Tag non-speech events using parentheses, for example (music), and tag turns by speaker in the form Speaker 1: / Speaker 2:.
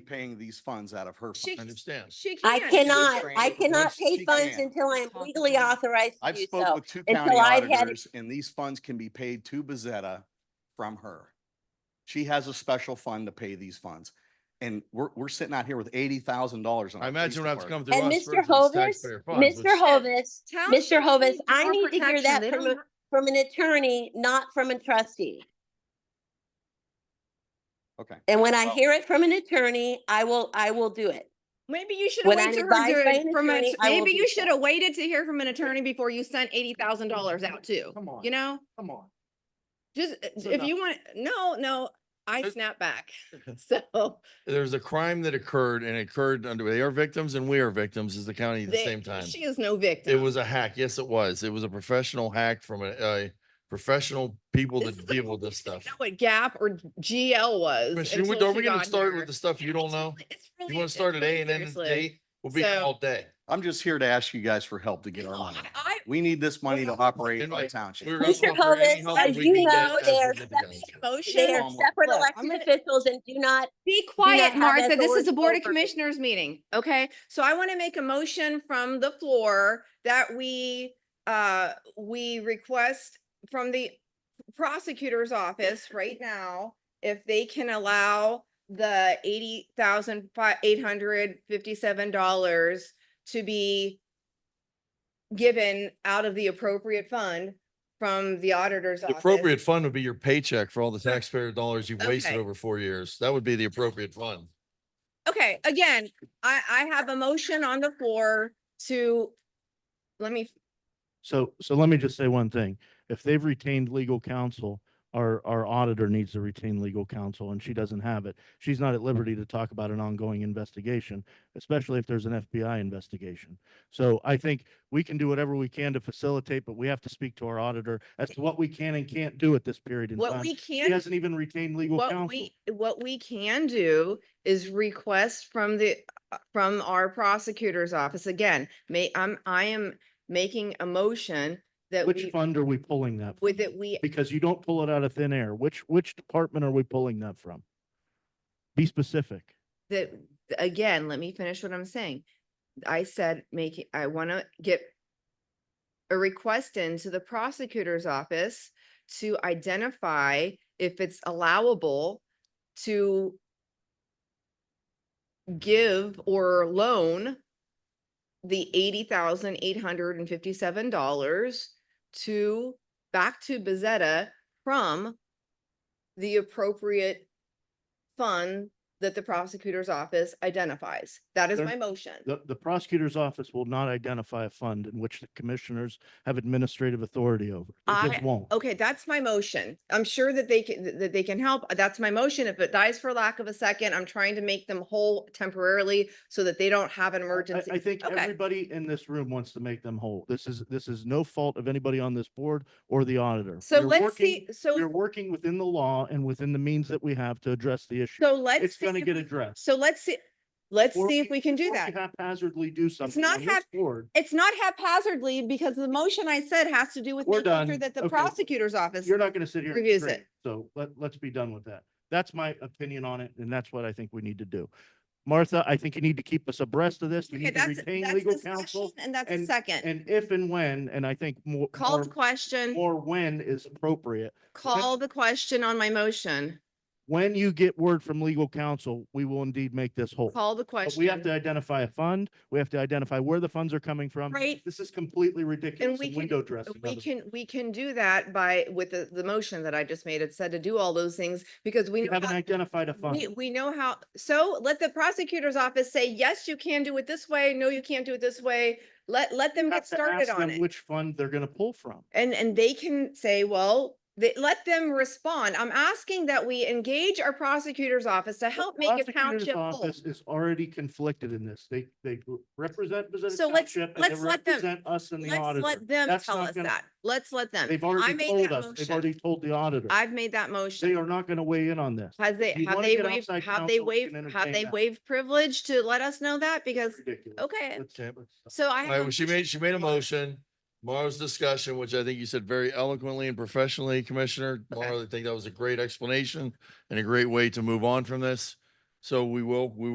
Speaker 1: paying these funds out of her.
Speaker 2: She-
Speaker 1: fund.
Speaker 3: Understand.
Speaker 2: She
Speaker 4: I
Speaker 2: can't.
Speaker 4: cannot, I
Speaker 2: Fran.
Speaker 4: cannot
Speaker 1: Yes,
Speaker 4: pay
Speaker 1: she
Speaker 4: funds
Speaker 1: can.
Speaker 4: until I am
Speaker 2: Talk
Speaker 4: legally
Speaker 2: to her.
Speaker 4: authorized to
Speaker 1: I've
Speaker 4: do
Speaker 1: spoke
Speaker 4: so.
Speaker 1: with two
Speaker 4: until
Speaker 1: county
Speaker 4: I've had-
Speaker 1: auditors and these funds can be paid to Bezetta from her. She has a special fund to pay these funds. And we're, we're sitting out here with eighty thousand dollars.
Speaker 3: I imagine we'll have to come through
Speaker 4: And
Speaker 3: us
Speaker 4: Mr.
Speaker 3: versus
Speaker 4: Hovis,
Speaker 3: taxpayer funds.
Speaker 4: Mr.
Speaker 3: which-
Speaker 4: Hovis,
Speaker 2: Tell
Speaker 4: Mr.
Speaker 2: them
Speaker 4: Hovis,
Speaker 2: need
Speaker 4: I
Speaker 2: more
Speaker 4: need to hear
Speaker 2: protection.
Speaker 4: that
Speaker 2: They
Speaker 4: from,
Speaker 2: don't
Speaker 4: a- from an attorney, not from a trustee.
Speaker 1: Okay.
Speaker 4: And when I
Speaker 1: Well-
Speaker 4: hear it from an attorney, I will, I will do it.
Speaker 2: Maybe you should have
Speaker 4: When I'm
Speaker 2: waited to
Speaker 4: advised
Speaker 2: hear
Speaker 4: by
Speaker 2: it
Speaker 4: an
Speaker 2: from a,
Speaker 4: attorney, I will
Speaker 2: maybe
Speaker 4: do
Speaker 2: you
Speaker 4: so.
Speaker 2: should have waited to hear from an attorney before you sent eighty thousand dollars out too.
Speaker 3: Come on,
Speaker 2: You know,
Speaker 3: come on.
Speaker 2: just uh,
Speaker 3: So
Speaker 2: if
Speaker 3: no.
Speaker 2: you want, no, no, I
Speaker 3: It-
Speaker 2: snap
Speaker 3: (laughs)
Speaker 2: back. (laughs) So
Speaker 3: There's a crime that occurred and occurred under, they are victims and we are victims as the county at the
Speaker 2: they-
Speaker 3: same time.
Speaker 2: She is no
Speaker 3: It
Speaker 2: victim.
Speaker 3: was a hack. Yes, it was. It was a professional hack from a, a professional people
Speaker 2: This is
Speaker 3: that
Speaker 2: the
Speaker 3: deal with
Speaker 2: only
Speaker 3: this
Speaker 2: thing I
Speaker 3: stuff.
Speaker 2: know What GAP or GL was.
Speaker 3: Commissioner, we-
Speaker 2: until
Speaker 3: are
Speaker 2: she
Speaker 3: we gonna
Speaker 2: got
Speaker 3: start
Speaker 2: here.
Speaker 3: with the stuff you don't know?
Speaker 2: It's really-
Speaker 3: You want
Speaker 2: it's
Speaker 3: to start at
Speaker 2: really
Speaker 3: A and end at
Speaker 2: seriously.
Speaker 3: D? We'll be here
Speaker 2: So-
Speaker 3: all day.
Speaker 1: I'm just here to ask you guys for help to get our
Speaker 2: No,
Speaker 1: money.
Speaker 2: I- I,
Speaker 1: We need this money to operate
Speaker 3: Anyway,
Speaker 1: our township.
Speaker 3: we were gonna
Speaker 4: Mr.
Speaker 3: talk for any
Speaker 4: Hovis,
Speaker 3: help
Speaker 4: as
Speaker 3: we
Speaker 4: you
Speaker 3: can get
Speaker 4: know,
Speaker 3: as
Speaker 4: they are
Speaker 3: we get
Speaker 4: separate-
Speaker 3: together.
Speaker 4: They are
Speaker 2: motion.
Speaker 1: Look,
Speaker 4: separate
Speaker 2: look, I'm
Speaker 4: elected
Speaker 2: gonna-
Speaker 4: officials and do not,
Speaker 2: Be
Speaker 4: not
Speaker 2: quiet,
Speaker 4: have
Speaker 2: Martha. This is
Speaker 4: authority
Speaker 2: a Board of
Speaker 4: over-
Speaker 2: Commissioners meeting, okay? So I want to make a motion from the floor that we, uh, we request from the prosecutor's office right now, if they can allow the eighty thousand five, eight hundred fifty-seven dollars to be given out of the appropriate fund from the auditor's
Speaker 3: The
Speaker 2: office.
Speaker 3: appropriate fund would be your paycheck for all the taxpayer dollars you've wasted
Speaker 2: Okay.
Speaker 3: over four years. That would be the appropriate fund.
Speaker 2: Okay, again, I, I have a motion on the floor to, let me,
Speaker 5: So, so let me just say one thing. If they've retained legal counsel, our, our auditor needs to retain legal counsel and she doesn't have it. She's not at liberty to talk about an ongoing investigation, especially if there's an FBI investigation. So I think we can do whatever we can to facilitate, but we have to speak to our auditor as to what we can and can't do at this period in
Speaker 2: what
Speaker 5: time.
Speaker 2: we
Speaker 5: She
Speaker 2: can,
Speaker 5: hasn't even retained legal
Speaker 2: what
Speaker 5: counsel.
Speaker 2: we, what we can do is request from the, uh, from our prosecutor's office. Again, may, I'm, I am making a motion that
Speaker 5: Which
Speaker 2: we,
Speaker 5: fund are we pulling that?
Speaker 2: with
Speaker 5: from?
Speaker 2: it, we,
Speaker 5: Because you don't pull it out of thin air. Which, which department are we pulling that from? Be specific.
Speaker 2: that, again, let me finish what I'm saying. I said, make, I want to get a request into the prosecutor's office to identify if it's allowable to give or loan the eighty thousand eight hundred and fifty-seven dollars to, back to Bezetta from the appropriate fund that the prosecutor's office identifies. That is
Speaker 5: There-
Speaker 2: my motion.
Speaker 5: The, the prosecutor's office will not identify a fund in which the commissioners have administrative authority over. It
Speaker 2: I- oh,
Speaker 5: just won't.
Speaker 2: Okay, that's my motion. I'm sure that they can, that they can help. That's my motion. If it dies for lack of a second, I'm trying to make them whole temporarily so that they don't have an
Speaker 5: I-
Speaker 2: emergency.
Speaker 5: I think
Speaker 2: Okay.
Speaker 5: everybody in this room wants to make them whole. This is, this is no fault of anybody on this board or the auditor.
Speaker 2: So
Speaker 5: We're
Speaker 2: let's
Speaker 5: working-
Speaker 2: see,
Speaker 5: We're
Speaker 2: so,
Speaker 5: working within the law and within the means that we have to address the issue.
Speaker 2: so let's.
Speaker 5: It's
Speaker 2: see
Speaker 5: gonna
Speaker 2: if
Speaker 5: get
Speaker 2: we-
Speaker 5: addressed.
Speaker 2: So let's see, let's
Speaker 5: Or
Speaker 2: see if we can do
Speaker 5: Or
Speaker 2: that.
Speaker 5: you Haphazardly do something
Speaker 2: not
Speaker 5: on this
Speaker 2: hap-
Speaker 5: board.
Speaker 2: It's not haphazardly because the motion I said has to do with
Speaker 5: We're
Speaker 2: making sure
Speaker 5: done.
Speaker 2: that the
Speaker 5: Okay.
Speaker 2: prosecutor's office.
Speaker 5: You're not gonna sit here. and
Speaker 2: reviews
Speaker 5: scream.
Speaker 2: it.
Speaker 5: So let, let's be done with that. That's my opinion on it and that's what I think we need to do. Martha, I think you need to keep us abreast of this. You
Speaker 2: Okay,
Speaker 5: need to
Speaker 2: that's,
Speaker 5: retain
Speaker 2: that's
Speaker 5: legal
Speaker 2: discussion
Speaker 5: counsel.
Speaker 2: and that's a
Speaker 5: and-
Speaker 2: second.
Speaker 5: And if and when, and I think more,
Speaker 2: Call the
Speaker 5: more,
Speaker 2: question,
Speaker 5: more when is appropriate.
Speaker 2: call the question on my motion.
Speaker 5: When you get word from legal counsel, we will indeed make this whole.
Speaker 2: Call the
Speaker 5: But
Speaker 2: question.
Speaker 5: we have to identify a fund. We have to identify where the funds are coming from.
Speaker 2: Right,
Speaker 5: This is completely ridiculous
Speaker 2: we
Speaker 5: and
Speaker 2: can-
Speaker 5: window dressing.
Speaker 2: We
Speaker 5: of us.
Speaker 2: can, we can do that by, with the, the motion that I just made, it said to do all those things, because we
Speaker 5: We
Speaker 2: know,
Speaker 5: haven't
Speaker 2: how-
Speaker 5: identified a
Speaker 2: we,
Speaker 5: fund.
Speaker 2: we know how, so let the prosecutor's office say, yes, you can do it this way, no, you can't do it this way. Let, let them
Speaker 5: We
Speaker 2: get
Speaker 5: have to ask
Speaker 2: started on
Speaker 5: them
Speaker 2: it,
Speaker 5: Which fund they're gonna pull from.
Speaker 2: and, and they can say, well, they, let them respond. I'm asking that we engage our prosecutor's office to help make a
Speaker 5: Prosecutor's
Speaker 2: township whole.
Speaker 5: Office is already conflicted in this. They, they represent Bezetta
Speaker 2: So let's-
Speaker 5: Township and they
Speaker 2: let's let them-
Speaker 5: represent us and the
Speaker 2: Let's
Speaker 5: auditor.
Speaker 2: let them
Speaker 5: That's
Speaker 2: tell
Speaker 5: not
Speaker 2: us
Speaker 5: gonna-
Speaker 2: that, let's let them.
Speaker 5: They've
Speaker 2: I
Speaker 5: already
Speaker 2: made
Speaker 5: told
Speaker 2: that
Speaker 5: us. They've
Speaker 2: motion,
Speaker 5: already told the auditor.
Speaker 2: I've made that motion.
Speaker 5: They are not gonna weigh in on this.
Speaker 2: Has they,
Speaker 5: If you
Speaker 2: have
Speaker 5: wanna
Speaker 2: they
Speaker 5: get
Speaker 2: waived,
Speaker 5: outside
Speaker 2: have they
Speaker 5: counsel, we
Speaker 2: waived,
Speaker 5: can
Speaker 2: have they
Speaker 5: entertain that.
Speaker 2: waived privilege to let us know that? Because,
Speaker 5: Ridiculous.
Speaker 2: okay,
Speaker 5: Let's-
Speaker 3: Okay.
Speaker 5: let's-
Speaker 2: so I.
Speaker 3: All
Speaker 2: have
Speaker 3: right,
Speaker 2: a
Speaker 3: well, she made, she made a
Speaker 2: Tomorrow.
Speaker 3: motion. Tomorrow's discussion, which I think you said very eloquently and professionally,
Speaker 2: Okay.
Speaker 3: Commissioner. Tomorrow, I think that was a great explanation and a great way to move on from this. So we will, we